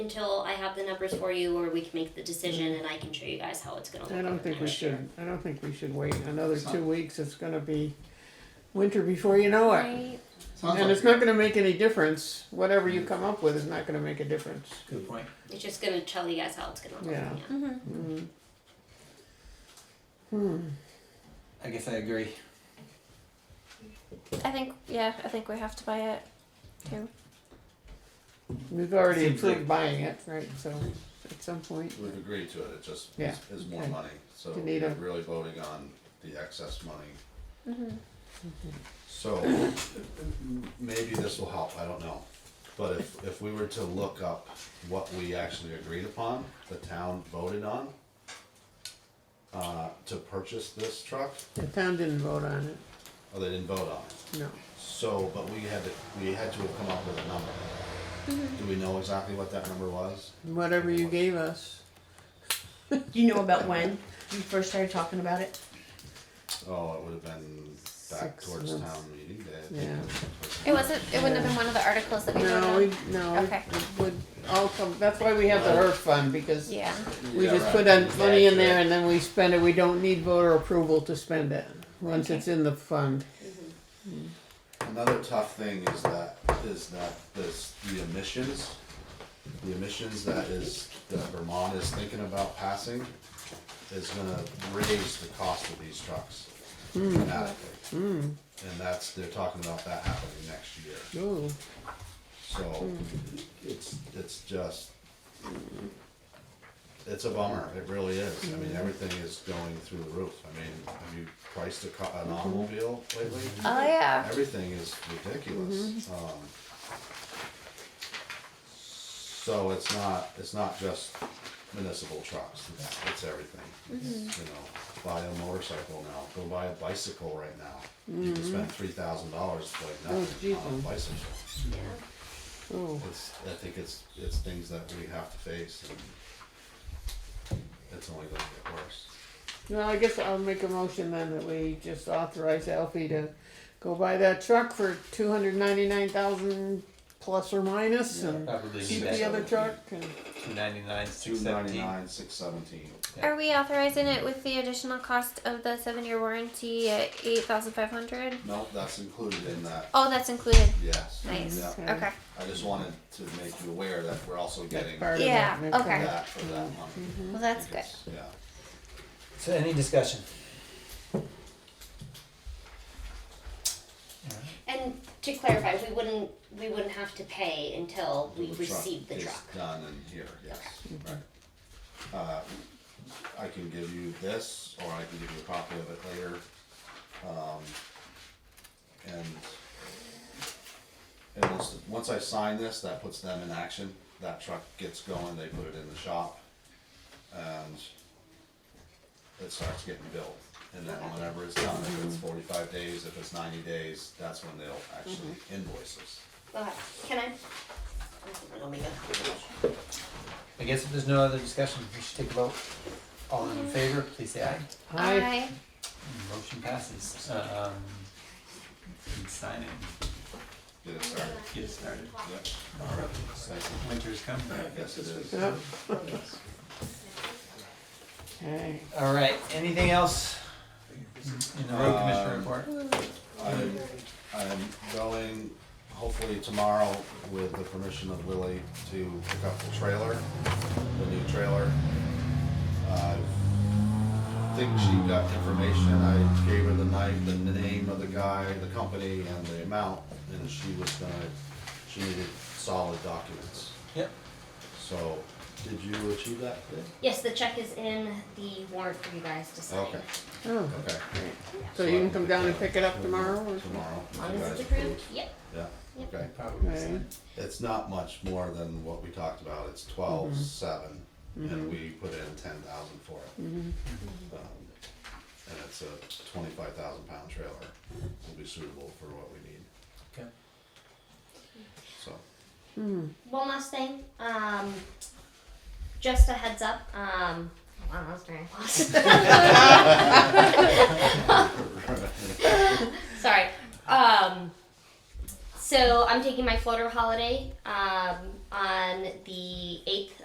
until I have the numbers for you or we can make the decision and I can show you guys how it's gonna look. I don't over think we next year. should, I don't think we should wait another Some- two weeks, it's gonna be winter before you know it. Right. Sounds And like it's not gonna make any difference, whatever you come up with is not gonna make a difference. good point. It's just gonna tell you guys how it's gonna look. Yeah. yeah. Mm-hmm. Mm. Hmm, I guess I agree. I think yeah, I think we have to buy it too. we've already Seems approved like- buying it, right, so at some point, We've agreed to it, it just Yeah, is is more okay. money, so You need we're a- really voting on the excess money. Mm-hmm. So, maybe this will help, I don't know. But if, if we were to look up what we actually agreed upon, the town voted on, uh, to purchase this truck, the town didn't vote on it, oh, they didn't vote on it. no. So, but we had to, we had to have come up with a number. Do we know exactly what that number was? Whatever you gave us, Do you know about when you first started talking about it? Oh, it would have been back Six towards months. town meeting day. I think. yeah. It wasn't. It wouldn't have been one of the articles that we voted No, on. we, no, it- Okay. it would all come, that's why we have the HERF fund, because Yeah. we Yeah, just right. put in It's money in accurate. there and then we spend it, we don't need voter approval to spend it, once it's in the fund. Another tough thing is that, is that this, the emissions, the emissions that is, that Vermont is thinking about passing is gonna raise the cost of these trucks Hmm. dramatically. And that's, they're talking about that happening next year, Ooh, so it's, it's just, it's a bummer, it really is, I mean, everything is going through the roof, I mean, have you priced a co- an automobile lately? Oh yeah. everything is ridiculous. Um, so it's not, it's not just municipal trucks, it's, it's everything. It's, You know, buy a motorcycle now, go buy a bicycle right now. You can spend three thousand dollars like Oh, nothing on a Jesus. bicycle. ooh, It's, I think it's, it's things that we have to face and it's only gonna get worse. well, I guess I'll make a motion then that we just authorize Alfie to go buy that truck for two hundred ninety-nine thousand plus or minus and Probably keep the other truck and, Two ninety nine, Two six seventeen. ninety-nine, six seventeen. Are we authorizing it with the additional cost of the seven-year warranty at eight thousand five hundred? No, that's included in that, Oh, that's included. yes. Nice. Yeah. Okay. Okay. I just wanted to make you aware that we're also getting part of Yeah, that, make okay. that for that month. Well, that's good. Yeah. So any discussion? And to clarify, we wouldn't we wouldn't have to pay until we The truck receive the is truck. Mm-hmm. Done and here, yes, right. Uh, I can give you this, or I can give you a copy of it later. Um, And, and once, once I sign this, that puts them in action, that truck gets going, they put it in the shop. And it starts getting built, and then whenever it's done, if Mm-hmm. it's forty-five days, if it's ninety days, that's when they'll actually Mm-hmm. invoice us. Okay. Can I? Let me go. I guess if there's no other discussion, we should take a vote. All Mm-hmm. in favor, please say aye. I, Aye. Motion passes. Um, and sign it, Get it started. get it started. Yep, Alright, thank Winter's coming. you. Yes, it is. Yep. okay, Alright, anything else in the road commissioner report? Mm-hmm. I'm, I'm going hopefully tomorrow with the permission of Willie to pick up the trailer, the new trailer. I think she got information, I gave her the night, the name of the guy, the company, and the amount, and she was gonna, she needed solid documents. Yep. So, did you achieve that today? Yes, the check is in the warrant for you guys to sign. Okay, oh, okay. so you can come down and pick it up tomorrow or? Tomorrow. if you Mine guys- Oh, is approved. Yep. Yeah, Yep. okay. Probably. Okay. sign. It's not much more than what we talked about, it's twelve seven, and we put in ten thousand for it. Um, And it's a twenty-five thousand pound trailer, will be suitable for what we need, Okay. so. One last thing. Um, just a heads up. Um, wow, that was very fast. Sorry. Um, so I'm taking my floater holiday um, on the eighth